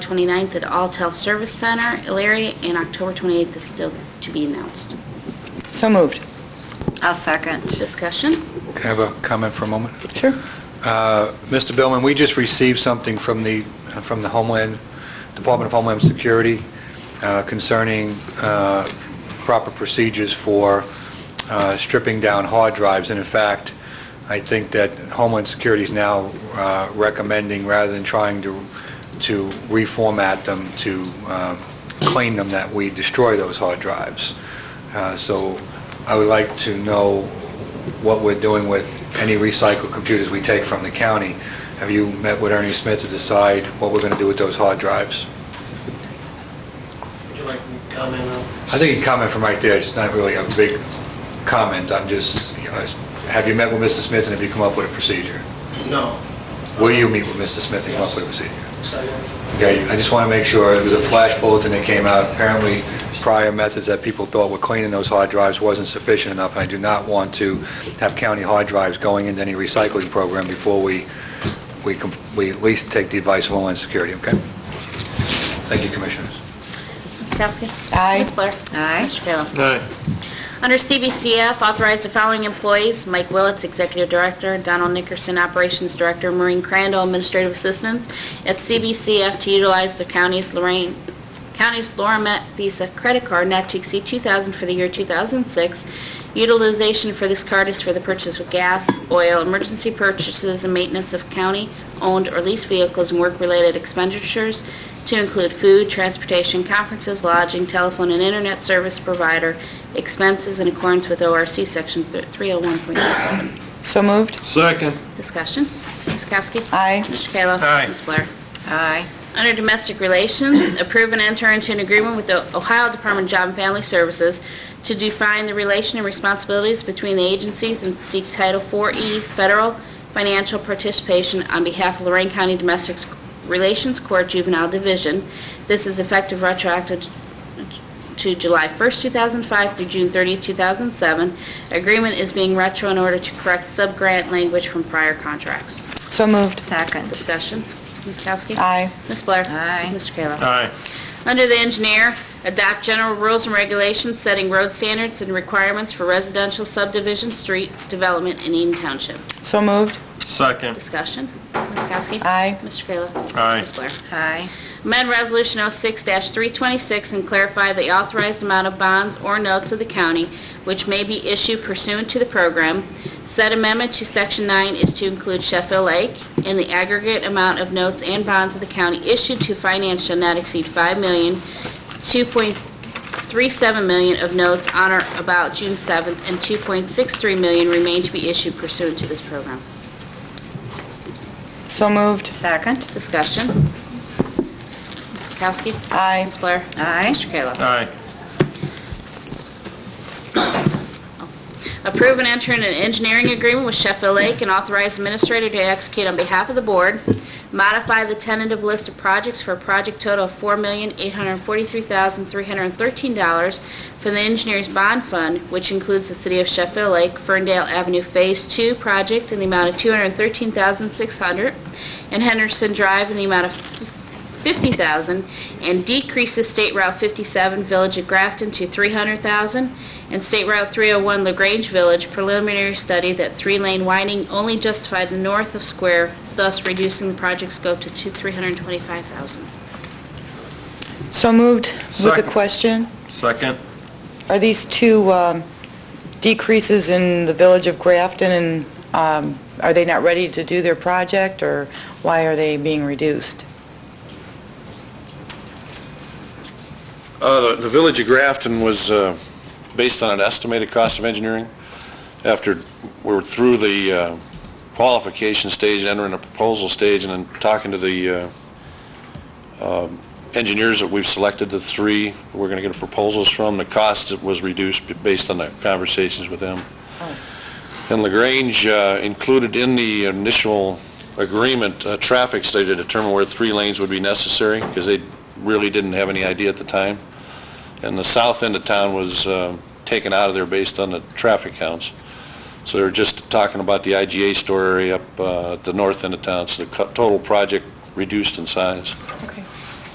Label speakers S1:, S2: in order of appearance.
S1: 29th at Altel Service Center, Elyria, and October 28th is still to be announced.
S2: So moved.
S3: I'll second.
S1: Discussion?
S4: Can I have a comment for a moment?
S2: Sure.
S4: Uh, Mr. Billman, we just received something from the, from the Homeland, Department of Homeland Security uh, concerning uh, proper procedures for uh, stripping down hard drives. And in fact, I think that Homeland Security is now uh, recommending, rather than trying to, to reformat them, to uh, clean them, that we destroy those hard drives. Uh, So I would like to know what we're doing with any recycled computers we take from the county. Have you met with Ernie Smith to decide what we're going to do with those hard drives?
S5: Would you like me to comment on?
S4: I think you comment from right there, it's not really a big comment, I'm just, you know, have you met with Mr. Smith and have you come up with a procedure?
S5: No.
S4: Will you meet with Mr. Smith and come up with a procedure?
S5: Second.
S4: Okay, I just want to make sure, it was a flash bulletin that came out, apparently prior methods that people thought were cleaning those hard drives wasn't sufficient enough, and I do not want to have county hard drives going into any recycling program before we, we com- we at least take the advice of Homeland Security, okay? Thank you, Commissioners.
S1: Ms. Kowski?
S2: Aye.
S1: Ms. Blair?
S3: Aye.
S1: Mr. Kayla?
S5: Aye.
S1: Under CBCF, authorize the following employees, Mike Willets, Executive Director, Donald Nickerson, Operations Director, Maureen Crandall, Administrative Assistants, at CBCF to utilize the county's Lorraine, county's Laura Met Visa credit card not to exceed 2000 for the year 2006. Utilization for this card is for the purchase of gas, oil, emergency purchases, and maintenance of county-owned or leased vehicles and work-related expenditures, to include food, transportation, conferences, lodging, telephone and internet service provider expenses in accordance with ORC Section 301.27.
S2: So moved.
S5: Second.
S1: Discussion. Ms. Kowski?
S2: Aye.
S1: Mr. Kayla?
S5: Aye.
S1: Ms. Blair?
S3: Aye.
S1: Under Domestic Relations, approve and enter into an agreement with the Ohio Department of Job and Family Services to define the relation and responsibilities between the agencies and seek Title 4E federal financial participation on behalf of Lorraine County Domestic Relations Court Juvenile Division. This is effective retroactive to July 1st, 2005 through June 30th, 2007. Agreement is being retro in order to correct sub-grant language from prior contracts.
S2: So moved.
S3: Second.
S1: Discussion. Ms. Kowski?
S2: Aye.
S1: Ms. Blair?
S3: Aye.
S1: Mr. Kayla?
S5: Aye.
S1: Under the engineer, adopt general rules and regulations setting road standards and requirements for residential subdivision street development in Eden Township.
S2: So moved.
S5: Second.
S1: Discussion. Ms. Kowski?
S2: Aye.
S1: Mr. Kayla?
S5: Aye.
S1: Ms. Blair?
S3: Aye.
S1: Amend Resolution 06-326 and clarify the authorized amount of bonds or notes of the county which may be issued pursuant to the program. Said amendment to Section 9 is to include Sheffield Lake, and the aggregate amount of notes and bonds of the county issued to finance shall not exceed 5 million, 2.37 million of notes on or about June 7th, and 2.63 million remain to be issued pursuant to this program.
S2: So moved.
S3: Second.
S1: Discussion. Ms. Kowski?
S2: Aye.
S1: Ms. Blair?
S3: Aye.
S1: Mr. Kayla?
S5: Aye.
S1: Approve and enter in an engineering agreement with Sheffield Lake and authorize administrator to execute on behalf of the board. Modify the tentative list of projects for a project total of $4,843,313 for the engineer's bond fund, which includes the City of Sheffield Lake Ferndale Avenue Phase 2 project in the amount of $213,600, and Henderson Drive in the amount of 50,000 and decreases State Route 57 Village of Grafton to 300,000 and State Route 301 LaGrange Village preliminary study that three-lane widening only justified the north of Square, thus reducing the project scope to two- 325,000.
S2: So moved. With a
S5: Second.
S2: question,
S5: Second.
S2: are these two um, decreases in the village of Grafton, and um, are they not ready to do their project, or why are they being reduced?
S6: Uh, The the Village of Grafton was uh, based on an estimated cost of engineering. After we're through the uh, qualification stage, entering the proposal stage, and then talking to the uh, um, engineers that we've selected, the three we're going to get proposals from, the cost was reduced based on the conversations with them. And LaGrange uh, included in the initial agreement, a traffic study to determine where three lanes would be necessary, because they really didn't have any idea at the time. And the south end of town was uh, taken out of there based on the traffic counts. So they were just talking about the IGA store area up uh, at the north end of town, so the co- total project reduced in size.
S2: Okay.